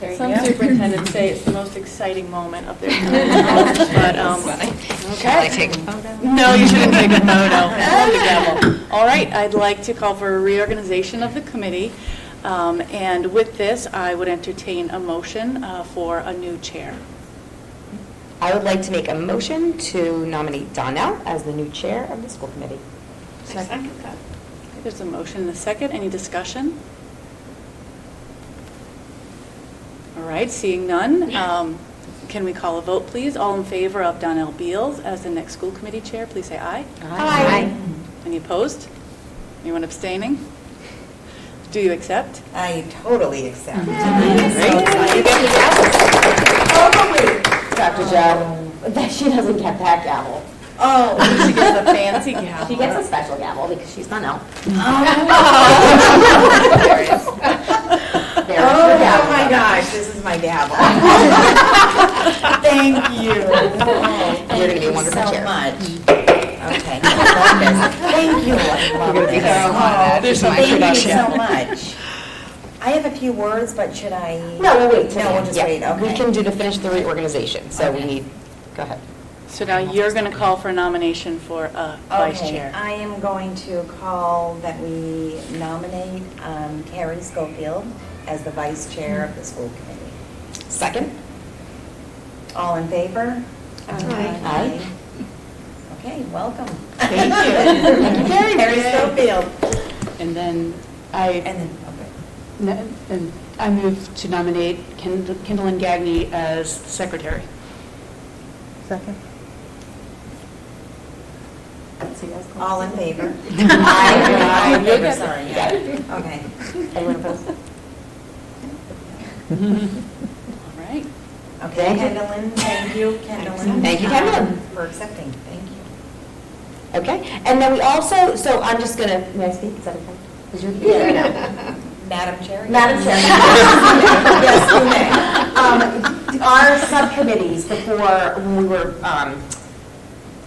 There you Some go. superintendents say it's the most exciting moment of their career. But, um, I take a photo. No, you shouldn't take a photo. Love the devil. All right, I'd like to call for a reorganization of the committee. Um, And with this, I would entertain a motion uh, for a new chair. I would like to make a motion to nominate Donnell as the new chair of the school committee. Second. Okay, There's a motion and a second. Any discussion? All right, seeing none, um, can we call a vote, please? All in favor of Donnell Beals as the next school committee chair, please say aye. Aye. Any opposed? Anyone abstaining? Do you accept? I totally accept. Dr. Joe, that Um, she doesn't get that gavel. Oh, She gets a fancy gown. She gets a special gavel because she's Oh. Donnell. There's oh her gavel. my gosh, this is my gavel. Thank you. You're gonna Thank be a you wonderful so chair. much. Okay, thank you. I love this. Oh, There's my Thank you introduction. so much. I have a few words, but should I? No, we'll wait. till No, we'll then. just Yeah. wait, okay. We can do the finish the reorganization, so we Okay. need, go ahead. So now you're going to call for a nomination for a vice Okay, chair. I am going to call that we nominate um, Carrie Schofield as the vice chair of the school committee. Second? All in favor? Aye. Aye. Okay, welcome. Thank you. Thank you very Carrie much. Schofield. And then And I, then, okay. and I move to nominate Kend- Kendall and Gagny as secretary. Second. all in favor? Aye. All in favor, sorry, yeah. Okay. Anyone opposed? All right. Okay, Thank you. Kendallin, thank you, Kendallin. Thank you, Kendallin. For accepting, thank you. Okay, and then we also, so I'm just gonna, may I speak? Is that okay? Is your, you know. Madam Chair? Madam Chair. Yes, you may. Um, Our subcommittees, before, when we were, um,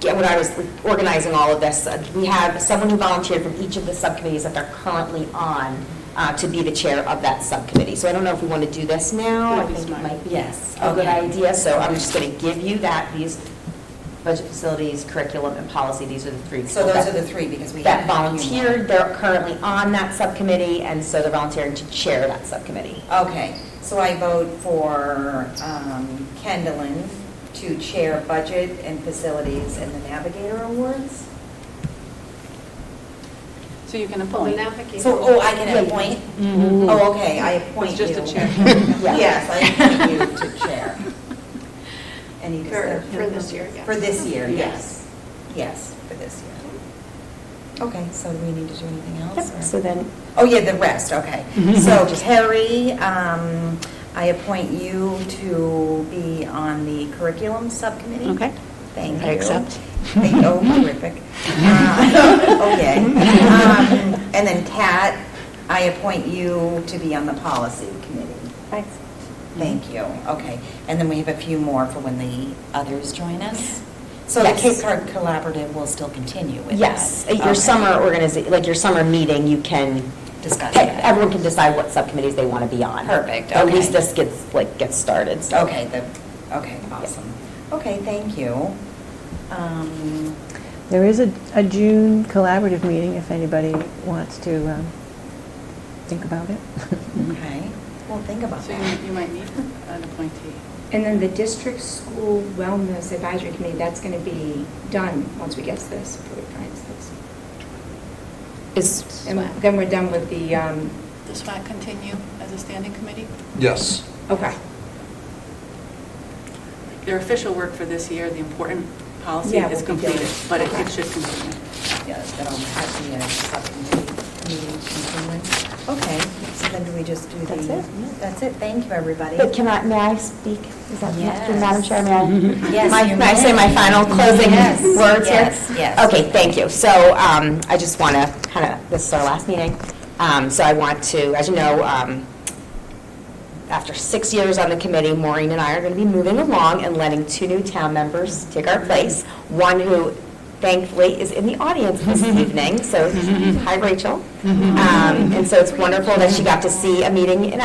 yeah, when I was organizing all of this, uh, we have someone who volunteered from each of the subcommittees that they're currently on uh, to be the chair of that subcommittee. So I don't know if we want to do this now. I Might be think it smart. might be yes, a good idea. So I'm just going to give you that, these budget facilities, curriculum, and policy, these are the three. So people those that- are the three, because we. that have a few more. volunteered, they're currently on that subcommittee, and so they're volunteering to chair that subcommittee. Okay, so I vote for um, Kendallin to chair budget and facilities and the Navigator Awards. So you Oh, can appoint. So, oh, I can appoint? Oh, okay, I appoint Mm. It's you. just a chair. Yes, I appoint you to chair. Any discussion? For this year, yes. For this year, yes. Yes, for this year. Okay, so do we need to do anything else? or- then. Oh, yeah, the rest, okay. Mm-hmm. So Terry, um, I appoint you to be on the curriculum subcommittee. Okay. Thank you. I accept. Thank you, oh, terrific. Uh, Okay. Um, And then Kat, I appoint you to be on the policy committee. Thanks. Thank you, okay. And then we have a few more for when the others join us. So the Yes. Cape Cod Collaborative will still continue with that? Yes, at Okay. your summer organiza, like your summer meeting, you can, Discuss pick- that. everyone can decide what subcommittees they want to be on. Perfect, At okay. least this gets, like, gets started, so. Okay, the, okay, awesome. Okay, thank you. Um, There is a, a June collaborative meeting if anybody wants to um, think about it. Okay, well, think about So that. you you might need an appointee. And then the district school wellness advisory committee, that's going to be done once we get this, approved, right? So it's- Is, And then we're done with the, um, Does SWAC continue as a standing committee? Yes. okay. Their official work for this year, the important policy Yeah, is we'll be doing completed, it. but it it should continue. Yeah, that'll have the uh, subcommittee meeting continuing. Okay, so then do we just do the? That's it, yeah. That's it, thank you, everybody. but can I, may I speak? Is that, Yes. Madam Chair, may I? Yes, My- you May I say may. my final closing Yes, words here? yes, yes. Okay, thank you. So um, I just want to kind of, this is our last meeting, Um, so I want to, as you know, um, after six years on the committee, Maureen and I are going to be moving along and letting two new town members take our place. One who thankfully is in the audience this evening, so hi Rachel. Um, And so it's wonderful that she got to see a meeting in